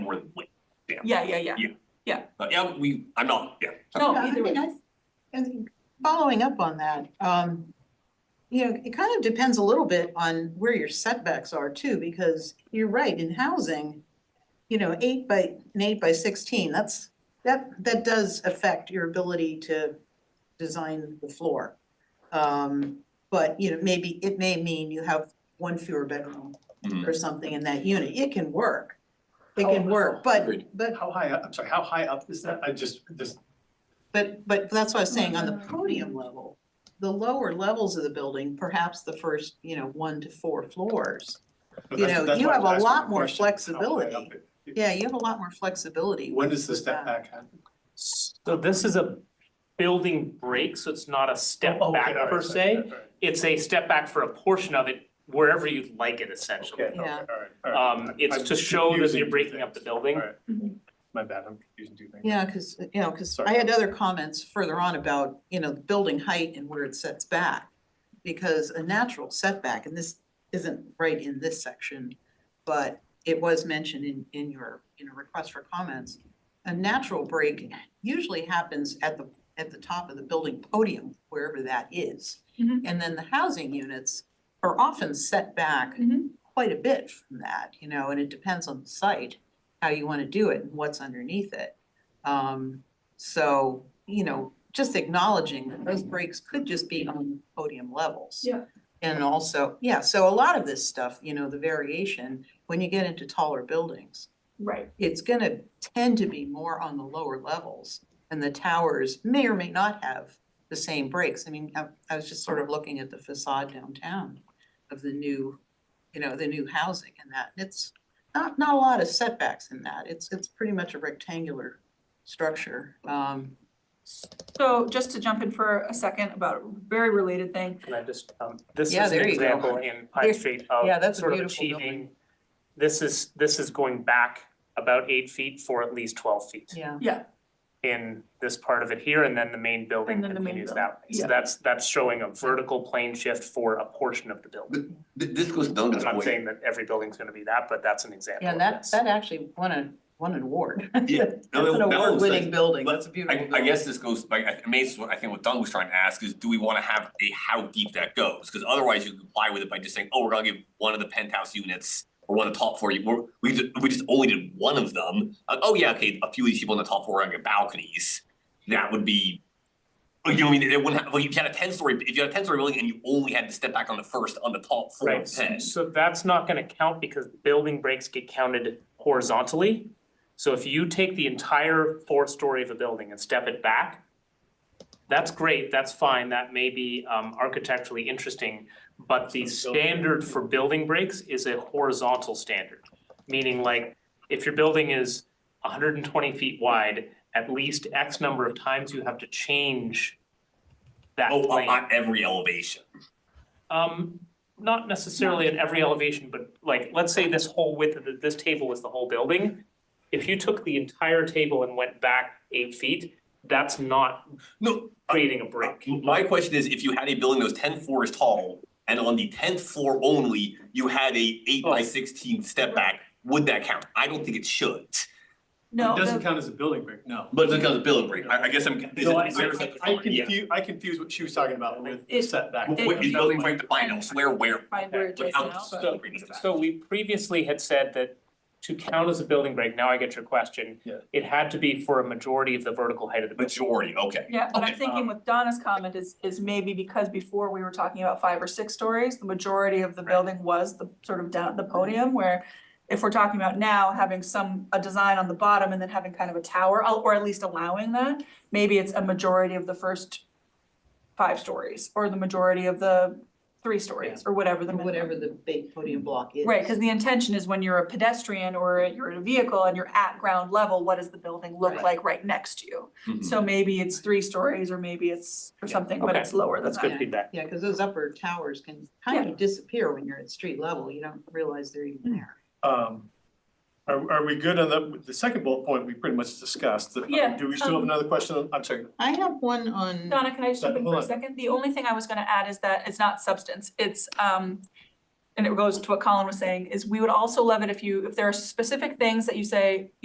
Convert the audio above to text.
yeah, yeah, yeah. Uh, yeah, we, I'm not, yeah. No, Yeah, I either mean, way. I- And following up on that, um, you know, it kind of depends a little bit on where your setbacks are too, because you're right, in housing, you know, eight by, an eight by sixteen, that's, that, that does affect your ability to design the floor. Um, but, you know, maybe, it may mean you have one fewer bedroom Mhm. or something in that unit, it can work. It How- can work, but, Agreed. but How high up, I'm sorry, how high up is that? I just, this, But but that's what I was saying, on the podium level, the lower levels of the building, perhaps the first, you know, one to four floors. but You that's- know, that's you why I have was a asking lot the more question, how high flexibility. up it- it- Yeah, you have a lot more flexibility. When does the with step that. back happen? So this is a building break, so it's not a step Oh, okay, back all right, per sorry, all se. right, all right. It's a step back for a portion of it wherever you'd like it essentially. Okay, okay, Yeah. all right, all right. Um, I'm it's to show that confusing you're two breaking up the things. building. All right. Mm-hmm. My bad, I'm confusing two things. Yeah, cause, you know, cause Sorry. I had other comments further on about, you know, building height and where it sets back. Because a natural setback, and this isn't right in this section, but it was mentioned in, in your, you know, request for comments. A natural break usually happens at the, at the top of the building podium, wherever that is. Mhm. And then the housing units are often set back Mhm. quite a bit from that, you know, and it depends on the site, how you wanna do it and what's underneath it. Um, so, you know, just acknowledging that those breaks could just be on podium levels. Yeah. And also, yeah, so a lot of this stuff, you know, the variation, when you get into taller buildings, Right, it's gonna tend to be more on the lower levels. And the towers may or may not have the same breaks. I mean, I, I was just sort of looking at the facade downtown of the new, you know, the new housing and that, it's not, not a lot of setbacks in that. It's, it's pretty much a rectangular structure. Um, so just to jump in for a second about a very related thing, Can I just, um, this Yeah, is an there you go. example in Pine There- Street of yeah, that's a sort of beautiful achieving. building. This is, this is going back about eight feet for at least twelve feet yeah, in this part of it here, and then the main building And then the main continues building, that way. yeah. So that's, that's showing a vertical plane shift for a portion of the building. Th- This goes down to I'm the not point. saying that every building's gonna be that, but that's an example yeah, of and that, this. that actually won a, won an award. Yeah, That's no, an that was award-winning like- building. but That's a beautiful I, building. I guess this goes, like, I amazed, what I think what Don was trying to ask is, do we wanna have a how deep that goes? Cause otherwise you comply with it by just saying, oh, we're gonna give one of the penthouse units or one of the top floor, you, we're, we just, we just only did one of them. Uh, oh yeah, okay, a few of these people on the top floor are gonna get balconies, that would be, you know, what I mean, it wouldn't have, like, if you had a ten story, if you had a ten story building and you only had to step back on the first, on the top floor Right, of ten. so so that's not gonna count because building breaks get counted horizontally. So if you take the entire fourth story of a building and step it back, that's great, that's fine, that may be um architecturally interesting, but the So building- standard for building breaks is a horizontal standard. Meaning like, if your building is hundred and twenty feet wide, at least X number of times you have to change that plane. Oh, on on every elevation. Um, not necessarily at every elevation, but like, let's say this whole width of the- this table is the whole building. If you took the entire table and went back eight feet, that's not No, creating a break. My question is, if you had a building that was ten floors tall, and on the tenth floor only, you had a eight by Oh. sixteen step back, would that count? I don't think it should, no, It the- doesn't count as a building break, no. but it's because of building break, I I guess I'm. is No, it- I, is there a I, second I floor? Yeah. confuse, I confuse what she was talking about with It- setback. Wh- wh- Is building break defined elsewhere, where? by where it Like is how now, does but- building break does So we previously had said that to count as a building break, now I get your question. Yeah. It had to be for a majority of the vertical height of the that? building. Majority, okay. Yeah, but I'm Okay, thinking um, with Donna's comment is, is maybe because before we were talking about five or six stories, the majority of the Right. building was the sort of down at the podium where if we're talking about now having some, a design on the bottom and then having kind of a tower, al- or at least allowing that, maybe it's a majority of the first five stories, or the majority of the three stories, or whatever the minimum. Whatever the big podium block is. Right, cause the intention is when you're a pedestrian or you're in a vehicle and you're at ground level, what does the building look Right. like right next to you? mhm. So maybe it's three stories or maybe it's or Mm-hmm. Yeah, something, but okay. it's lower than That's good that. Yeah. feedback. Yeah, because those upper towers can kind of disappear when you're at street level, you don't realize they're even there. Um, are, are we good on the, the second bullet point, we pretty much discussed, Uh, Yeah, do we still have um, another question, on- I'm sorry, I have one on, Donna, can I just jump in for a Hold on. second? The only thing I was gonna add is that it's not substance, it's um and it goes to what Colin was saying, is we would also love it if you, if there are specific things that you say,